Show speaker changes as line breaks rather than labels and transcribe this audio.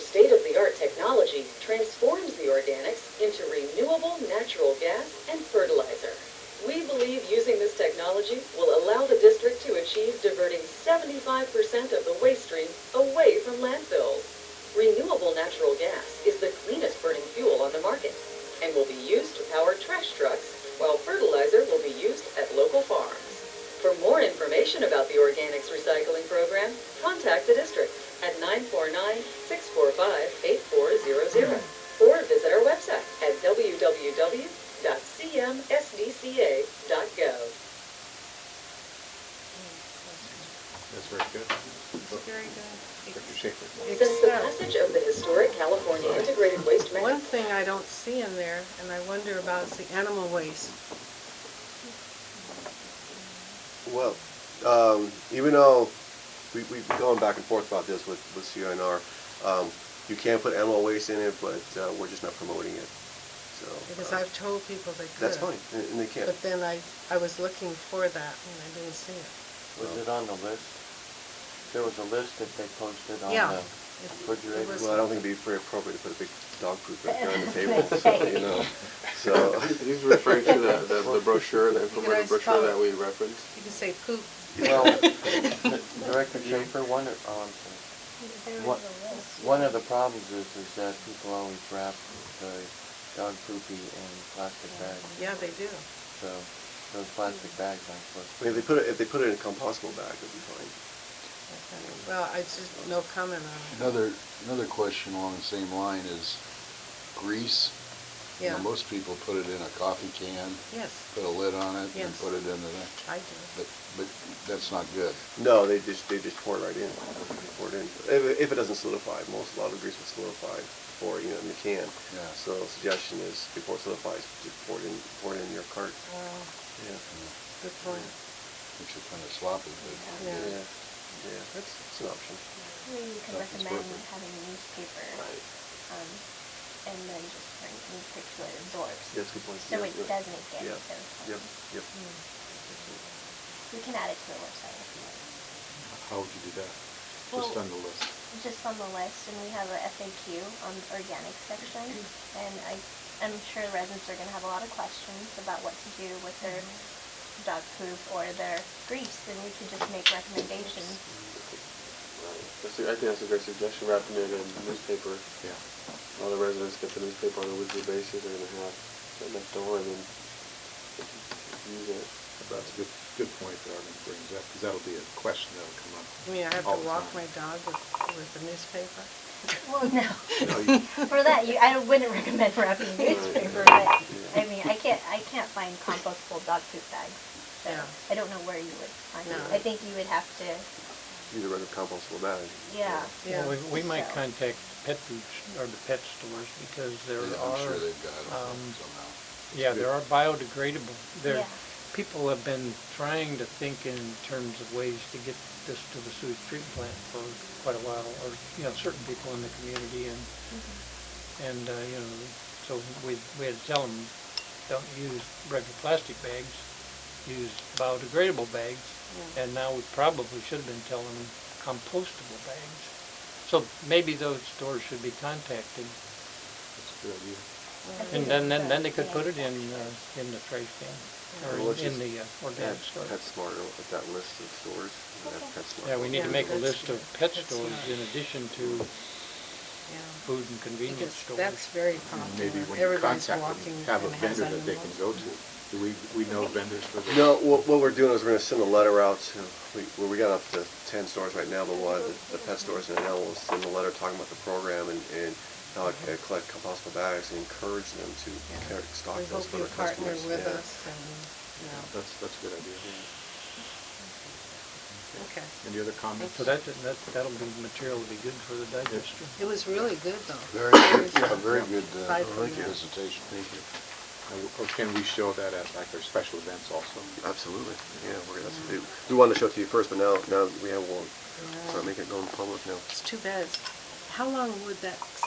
state-of-the-art technology transforms the organics into renewable natural gas and fertilizer. We believe using this technology will allow the district to achieve diverting 75% of the waste stream away from landfills. Renewable natural gas is the cleanest burning fuel on the market and will be used to power trash trucks while fertilizer will be used at local farms. For more information about the organics recycling program, contact the district at 949-645-8400 or visit our website at www.cmsdca.gov.
That's very good.
Very good.
Dr. Schaefer.
Since the passage of the historic California Integrated Waste
One
Management
thing I don't see in there, and I wonder about, is the animal waste.
Well, um, even though we, we've been going back and forth about this with, with CNR, um, you can put animal waste in it, but, uh, we're just not promoting it, so.
Because
uh,
I've told people they could.
That's fine, and and they can't.
But then I, I was looking for that and I didn't see it.
Was it on the list? There was a list that they posted on
Yeah.
the
It- it
refrigerator.
was-
Well, I don't think it'd be very appropriate to put a big dog poop right there on the table, so, you know, so.
He's referring to the, the- the brochure, the informative
always
brochure
follow.
that we referenced.
You can say poop.
Well, Director Schaefer, one, of- oh, I'm sorry. What- One of the problems is, is that people always wrap the dog poopy in plastic bags.
Yeah, they do.
So those plastic bags aren't supposed
I mean,
to.
if they put it, if they put it in a compostable bag, it'd be fine.
Well, I just, no comment on it.
Another, another question along the same line is grease. You know,
Yeah,
Most people put it in a coffee can,
yes,
put a lid on it, and
Yes.
put it in the, thing.
I do.
but, but that's not good.
No, they just, they just pour it right in, They pour it in. If, if it doesn't solidify, most, a lot of grease will solidify before, you know, in the can.
Yeah.
So suggestion is before it solidifies, just pour it in, pour it in your cart.
Wow,
Yeah.
Uh, good point.
Makes it kind of sloppy, but.
Yeah.
Yeah, yeah, that's, it's an option.
Maybe you could
That's what's
recommend
working.
having a newspaper, um, and then just print newspaper so it absorbs.
Yeah, that's a good point.
So
Yeah,
it
yeah.
doesn't get
Yeah.
those.
Yep, yep.
We can add it to the website. if you want.
How would you do that?
Well- on
the list?
Just on the list, and we have a FAQ on the organic section, and I, I'm sure residents are gonna have a lot of questions about what to do with their dog poop or their grease, and we could just make recommendations.
That's a- I think that's a great suggestion, wrapping it in newspaper.
Yeah.
All the residents get the newspaper on a weekly basis, they're gonna have that left over and then they can use it.
That's a good, good point that Arvin brings up, because that'll be a question that'll come up.
I mean, I have
all
to
the
walk my
time.
dog with, with the newspaper.
Well, no.
No, you-
For that, you, I don't- wouldn't recommend wrapping newspaper, but, I mean, I can't, I can't find compostable dog poop bags. So,
Yeah.
I don't know where you would find
No.
it. I think you would have to,
Use a regular compostable bag.
yeah.
Yeah,
Well, we- we might
So-
contact pet food, sh- or the pet stores, because there
Yeah, I'm sure
are,
they've got them
um,
somehow.
yeah, there are biodegradable. There,
Yeah.
people have been trying to think in terms of ways to get this to the sewage treatment plant for quite a while, or, you know, certain people in the community, and, and, uh, you know, so we, we had to tell them, don't use regular plastic bags, use biodegradable bags, and now we probably should have been telling them compostable bags. So maybe those stores should be contacted.
That's a good idea.
I think
And
it's
then, then,
the
then they could
organic
put it in, uh,
section.
in the trash can,
Well,
or
let's
in- in
just
the uh, organic store.
PetSmart, uh, with that list of stores, and have
Okay.
PetSmart.
Yeah, we need
Yeah,
to make a
that's
list of
good.
pet
That's
stores
smart.
in addition to
yeah.
food and convenience
Because
stores.
that's very
Maybe
popular.
when you
Everybody's
contact them,
walking and
have a
has
vendor that they
animals.
can go to. Do we, we know vendors for this?
No, what, what we're doing is we're gonna send a letter out to, we, well, we got up to ten stores right now, but one, of the the pet stores and now we'll send a letter talking about the program and, and how to collect compostable bags and encourage them to
Yeah.
carry- stock
We
those
hope
for
you
their customers.
partner with
Yeah.
us and,
That's, that's a good idea.
you know, okay.
Any other comments?
So that, that, that'll be material to be good for the digester.
It was really good though.
Very, good- a very good, uh,
Aside from
very good
that.
presentation.
Thank you. Now, Or can we show that at like our special events also?
Absolutely, yeah, we're, that's, we- we wanted to show it to you first, but now, now we have one, so
Yeah.
make it go in public now.
It's too bad. How long would that